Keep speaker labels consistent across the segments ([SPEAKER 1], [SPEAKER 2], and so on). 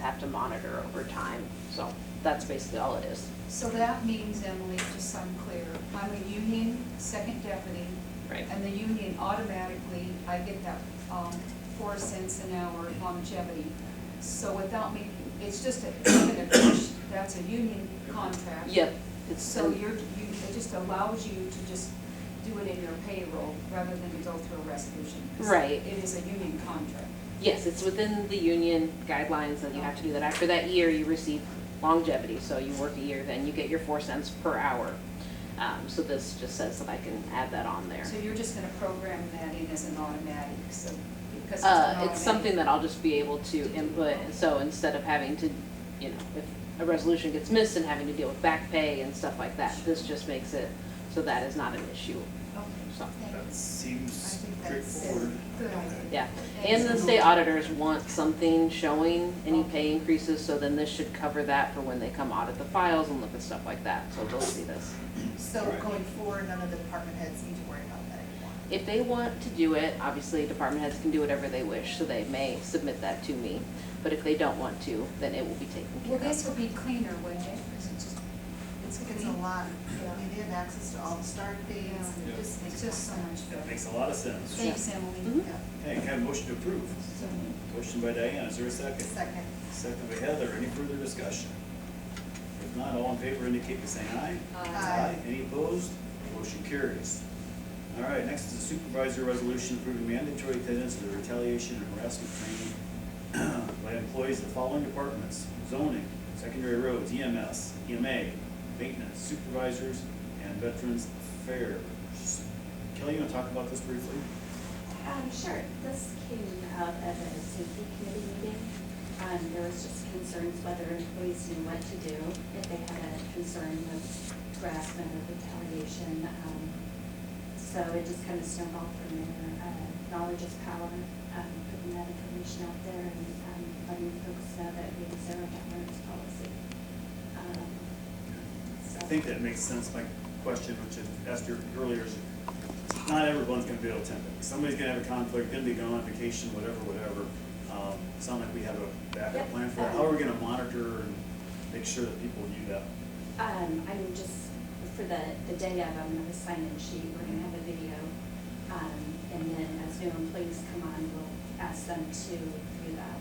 [SPEAKER 1] have to monitor over time. So that's basically all it is,
[SPEAKER 2] So that means, Emily, just so I'm clear, I'm a union second deputy,
[SPEAKER 1] right?
[SPEAKER 2] and the union automatically, I get that um, four cents an hour longevity. So without me, it's just a, that's a union contract.
[SPEAKER 1] Yep, it's,
[SPEAKER 2] So you're, you, it just allows you to just do it in your payroll rather than to go through a resolution. 'Cause
[SPEAKER 1] Right.
[SPEAKER 2] It is a union contract.
[SPEAKER 1] yes, it's within the union guidelines that you have to do that. After that year, you receive longevity, so you work a year, then you get your four cents per hour. Um, So this just says that I can add that on there.
[SPEAKER 2] So you're just gonna program that in as an automatic, so, because it's an
[SPEAKER 1] Uh,
[SPEAKER 2] automatic.
[SPEAKER 1] it's something that I'll just be able to input, so instead of having to, you know, if a resolution gets missed and having to deal with back pay and stuff like that, this just makes it so that is not an issue,
[SPEAKER 2] Okay,
[SPEAKER 1] so,
[SPEAKER 3] That
[SPEAKER 2] thanks.
[SPEAKER 3] seems
[SPEAKER 2] I think that's
[SPEAKER 3] straightforward.
[SPEAKER 2] a good idea.
[SPEAKER 1] yeah. And the state auditors want something showing any pay increases, so then this should cover that for when they come audit the files and look at stuff like that, so they'll see this.
[SPEAKER 4] So
[SPEAKER 3] Right.
[SPEAKER 4] going forward, none of the department heads need to worry about that anymore.
[SPEAKER 1] If they want to do it, obviously department heads can do whatever they wish, so they may submit that to me, but if they don't want to, then it will be taken care
[SPEAKER 2] Well,
[SPEAKER 1] of.
[SPEAKER 2] this will be cleaner, wouldn't it? 'Cause it's just-
[SPEAKER 4] It's, it's
[SPEAKER 2] clean.
[SPEAKER 4] a lot, I mean, they have access to all the start dates, and
[SPEAKER 3] Yeah.
[SPEAKER 4] it just
[SPEAKER 2] It's
[SPEAKER 4] makes
[SPEAKER 2] just so much
[SPEAKER 3] That
[SPEAKER 2] better.
[SPEAKER 3] makes a lot of sense.
[SPEAKER 2] Thanks,
[SPEAKER 5] Mm-hmm.
[SPEAKER 2] Emily.
[SPEAKER 4] yeah,
[SPEAKER 3] Hey, can I have a motion to approve?
[SPEAKER 2] So,
[SPEAKER 3] Motion by Diane, is there a second?
[SPEAKER 4] second,
[SPEAKER 3] Second by Heather, any further discussion? If not, all in favor indicate by saying aye.
[SPEAKER 2] uh,
[SPEAKER 4] Aye.
[SPEAKER 3] Any opposed? Motion carries. All right, next is the supervisor resolution approving mandatory attendance to the retaliation and harassment training by employees of the following departments, zoning, secondary roads, E EMS, EMA, maintenance, supervisors, and veterans affairs. Kelly, you want to talk about this briefly?
[SPEAKER 5] Um, sure, this came out of a safety committee meeting. Um, there was just concerns whether employees knew what to do, if they had a concern with harassment or retaliation. Um, So it just kind of snowballed from there, uh, knowledge is power, um, putting that information out there and, um, letting folks know that we have zero tolerance policy. Um, so-
[SPEAKER 3] I think that makes sense. My question, which I asked you earlier, is not everyone's gonna be able to attend it. Somebody's gonna have a conflict, gonna be gone on vacation, whatever, whatever. Um, Sound like we have a backup
[SPEAKER 5] Yep.
[SPEAKER 3] plan for it. How are we gonna monitor and make sure that people knew that?
[SPEAKER 5] Um, I'm just, for the, the day of, I'm gonna sign in sheet, we're gonna have a video. Um, and then as new employees come on, we'll ask them to do that.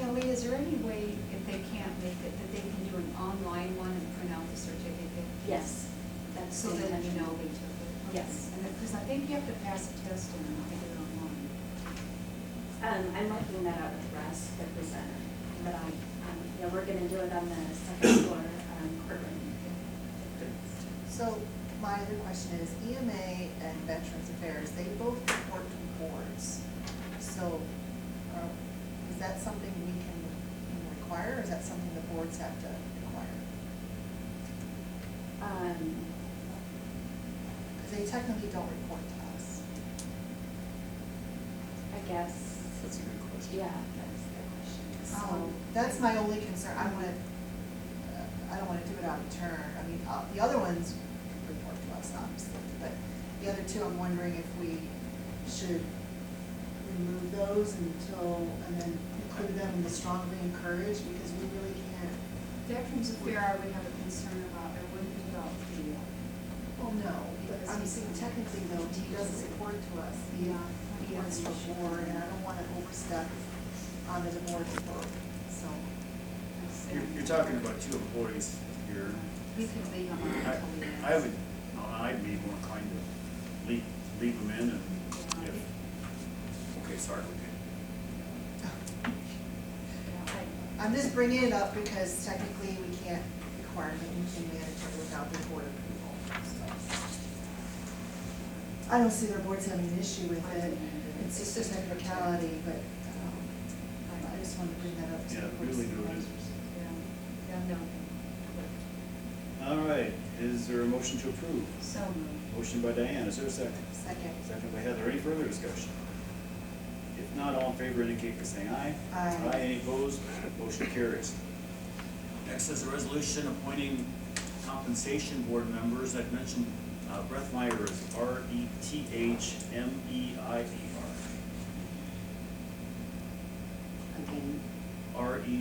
[SPEAKER 2] Kelly, is there any way, if they can't make it, that they can do an online one and print out the certificate?
[SPEAKER 5] Yes, that's.
[SPEAKER 2] So
[SPEAKER 5] the
[SPEAKER 2] then you
[SPEAKER 5] intention.
[SPEAKER 2] know they took it?
[SPEAKER 5] Yes.
[SPEAKER 2] And because I think you have to pass a test and then get it online.
[SPEAKER 5] Um, I'm working that out with Russ, the presenter, but I, um, yeah, we're gonna do it on the second floor, um, courtroom.
[SPEAKER 4] so my other question is, EMA and Veterans Affairs, they both report to boards, so, uh, is that something we can you know, require, or is that something the boards have to require?
[SPEAKER 5] Um,
[SPEAKER 4] Because they technically don't report to us.
[SPEAKER 5] I guess,
[SPEAKER 3] That's a good question.
[SPEAKER 5] yeah, that's the question.
[SPEAKER 4] Um,
[SPEAKER 5] So,
[SPEAKER 4] That's my only concern, I wanna, uh, I don't wanna do it out of turn, I mean, uh, the other ones report to us, obviously, but the other two, I'm wondering if we should remove those until, and then include them in the strongly encouraged, because we really can't,
[SPEAKER 2] Veterans Affairs, I would have a concern about, I wouldn't be about the, uh,
[SPEAKER 4] well, no, but I'm saying technically though, D doesn't report to us, the, uh, he works for board, and I don't wanna overstep onto the board's board, so.
[SPEAKER 3] You're, you're talking about two employees here.
[SPEAKER 2] We could leave them on
[SPEAKER 3] I
[SPEAKER 2] until we ask.
[SPEAKER 3] I would, no, I'd be more inclined to leave, leave them in and if, okay, sorry, okay.
[SPEAKER 4] I'm just bringing it up because technically we can't require anything mandatory without the board approval, so. I don't see their boards having an issue with it, it's just a technicality, but, um, I- I just wanted to bring that up. to the
[SPEAKER 3] Yeah,
[SPEAKER 4] board's-
[SPEAKER 3] really do it.
[SPEAKER 2] Yeah, yeah, no.
[SPEAKER 3] All right, is there a motion to approve?
[SPEAKER 2] So moved.
[SPEAKER 3] Motion by Diane, is there a second?
[SPEAKER 4] Second,
[SPEAKER 3] Second by Heather, any further discussion? If not, all in favor indicate by saying aye.
[SPEAKER 4] Aye.
[SPEAKER 3] any opposed, motion carries. Next is a resolution appointing compensation board members, I've mentioned uh, Brett Meyer is R E T H M E I E R.
[SPEAKER 1] Again,
[SPEAKER 3] R E